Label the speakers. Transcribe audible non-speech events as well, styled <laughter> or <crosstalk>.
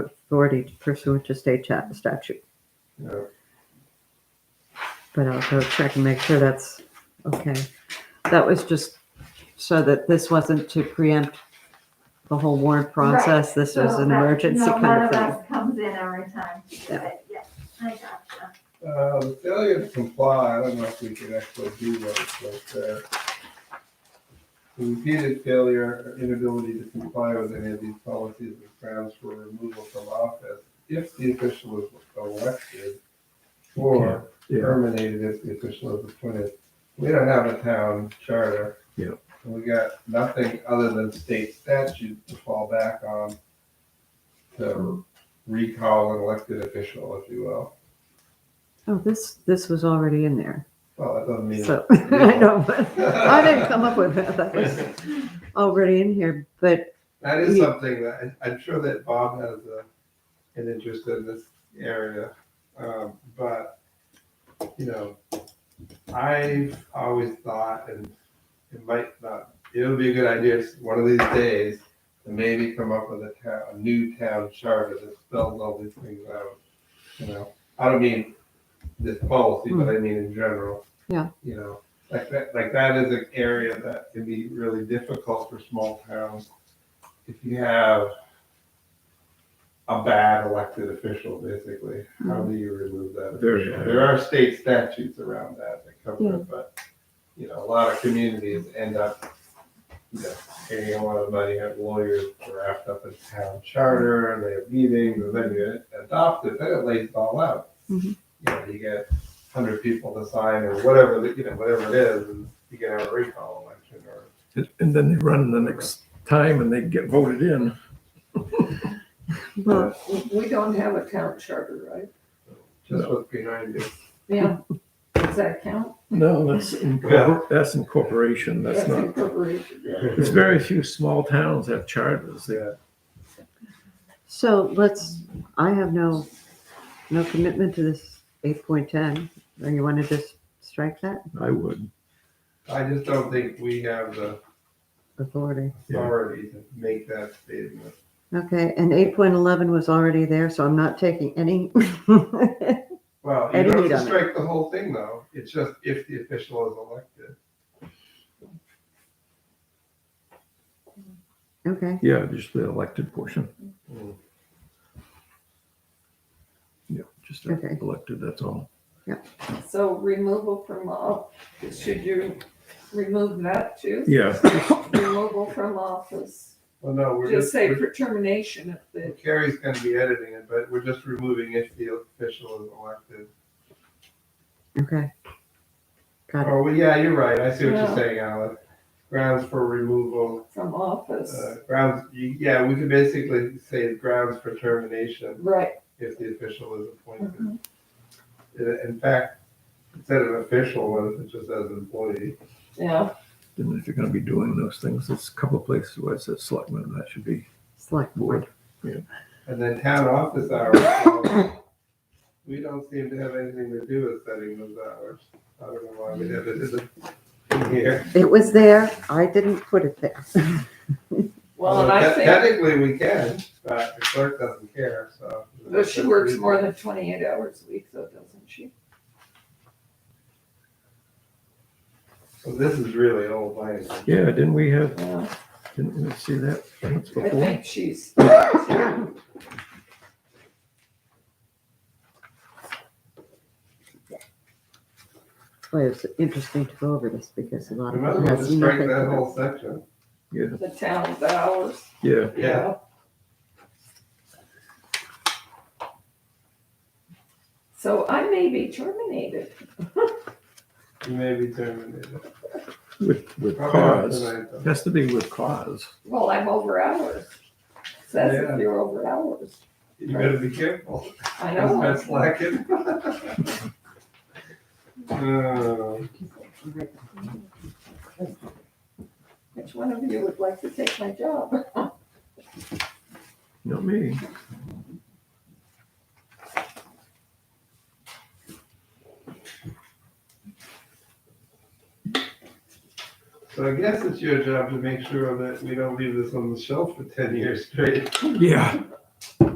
Speaker 1: authority pursuant to state cha- statute.
Speaker 2: Yeah.
Speaker 1: But I'll go check and make sure that's okay. That was just so that this wasn't to preempt the whole warrant process. This was
Speaker 3: So
Speaker 1: an
Speaker 3: that-
Speaker 1: emergency
Speaker 3: no,
Speaker 1: kind of
Speaker 3: None
Speaker 1: thing.
Speaker 3: of us comes in every time to do
Speaker 1: Yeah.
Speaker 3: it, yeah, I gotcha.
Speaker 2: Uh, the failure to comply, I don't know if we can actually do those, but, uh, the repeated failure or inability to comply with any of these policies is grounds for removal from office if the official is elected or
Speaker 4: Yeah,
Speaker 2: terminated if the official is appointed. We don't have a town charter.
Speaker 4: Yeah.
Speaker 2: We got nothing other than state statute to fall back on to recall an elected official, if you will.
Speaker 1: Oh, this, this was already in there.
Speaker 2: Well, that doesn't mean.
Speaker 1: So, <laughs> I know, but I didn't come up with that. That <laughs> was already in here, but
Speaker 2: That is
Speaker 1: Yeah.
Speaker 2: something that, I- I'm sure that Bob has a, an interest in this area, um, but, you know, I've always thought, and it might not, it would be a good idea, s- one of these days, to maybe come up with a town, a new town charter that spells all these things out, you know? I don't mean this policy, but I mean in general.
Speaker 1: Yeah.
Speaker 2: You know, like that, like that is an area that can be really difficult for small towns if you have a bad elected official, basically, how do you remove that?
Speaker 4: Very
Speaker 2: official?
Speaker 4: bad.
Speaker 2: There are state statutes around that that cover it, but, you know, a lot of communities end up, you know, paying a lot of money, have lawyers draft up a town charter, and they have meetings, and then you adopt it, then it lays it all out.
Speaker 1: Mhm.
Speaker 2: You know, you get hundred people to sign, or whatever, the- you know, whatever it is, and you can have a recall election, or
Speaker 4: and then they run the next time and they get voted in.
Speaker 1: well,
Speaker 5: We- We don't have a town charter, right?
Speaker 2: just
Speaker 4: No.
Speaker 2: what's behind you.
Speaker 5: Yeah. Does that count?
Speaker 4: No, that's, incorpor- that's incorporation, that's not,
Speaker 5: incorporated.
Speaker 4: it's very few small towns have charters that
Speaker 1: So let's, I have no, no commitment to this eight point ten, or you want to just strike that
Speaker 4: I would.
Speaker 2: I just don't think we have the
Speaker 1: authority?
Speaker 4: Yeah.
Speaker 2: authority to make that statement.
Speaker 1: Okay, and eight point eleven was already there, so I'm not taking any. <laughs>
Speaker 2: Well, you don't
Speaker 1: Edit
Speaker 2: have
Speaker 1: on
Speaker 2: to
Speaker 1: it.
Speaker 2: strike the whole thing though, it's just if the official is elected.
Speaker 1: Okay,
Speaker 4: Yeah, just the elected portion.
Speaker 2: Mm.
Speaker 4: Yeah, just
Speaker 1: Okay.
Speaker 4: elected, that's all.
Speaker 5: So removal from office, should you remove that too?
Speaker 4: Yeah,
Speaker 5: Removal from office,
Speaker 2: Well, no, we're
Speaker 5: just
Speaker 2: just,
Speaker 5: say
Speaker 2: we're-
Speaker 5: for termination of the,
Speaker 2: Carrie's gonna be editing it, but we're just removing if the official is elected.
Speaker 1: okay. Got it.
Speaker 2: Oh, well, yeah, you're right, I see what
Speaker 5: Yeah.
Speaker 2: you're saying, Alice. Grounds for removal,
Speaker 5: from office,
Speaker 2: uh, grounds, you- yeah, we could basically say grounds for termination
Speaker 5: right,
Speaker 2: if the official is appointed.
Speaker 5: Mhm.
Speaker 2: In in fact, instead of official, what if it just says employee?
Speaker 5: yeah,
Speaker 4: and if you're gonna be doing those things, there's a couple of places where it says selectmen, that should be
Speaker 1: Select board.
Speaker 4: board.
Speaker 2: And then town office hours. so We don't seem to have anything to do with setting those hours. I don't know why we have it in the- here.
Speaker 1: It was there, I didn't put it there. <laughs>
Speaker 5: well, and I
Speaker 2: Although te-
Speaker 5: think,
Speaker 2: Technically, we can, but the clerk doesn't care, so.
Speaker 5: though she works more than twenty-eight hours a week, though, doesn't she?
Speaker 2: So This is really old language.
Speaker 4: Yeah, didn't we have,
Speaker 5: Yeah,
Speaker 4: didn't we see that once
Speaker 5: I
Speaker 4: before?
Speaker 5: think she's,
Speaker 1: Boy, it's interesting to go over this because a lot
Speaker 2: We
Speaker 1: of it
Speaker 2: might as well
Speaker 1: has
Speaker 2: just break
Speaker 1: nothing.
Speaker 2: that
Speaker 1: to
Speaker 2: whole section.
Speaker 4: Yeah,
Speaker 5: the town's hours,
Speaker 4: yeah,
Speaker 2: Yeah.
Speaker 5: yeah. So I may be terminated.
Speaker 2: You may be terminated.
Speaker 4: with, with
Speaker 2: Probably not
Speaker 4: cause,
Speaker 2: tonight, though.
Speaker 4: has to be with cause.
Speaker 5: Well, I'm over hours. Says
Speaker 2: Yeah.
Speaker 5: if you're over hours.
Speaker 2: You better be careful.
Speaker 5: <laughs> I
Speaker 2: That's
Speaker 5: know.
Speaker 2: not <laughs> slacking. Oh,
Speaker 1: do.
Speaker 5: Which one of you would like to take my job?
Speaker 4: Not me.
Speaker 2: So I guess it's your job to make sure that we don't leave this on the shelf for ten years straight.
Speaker 4: Yeah,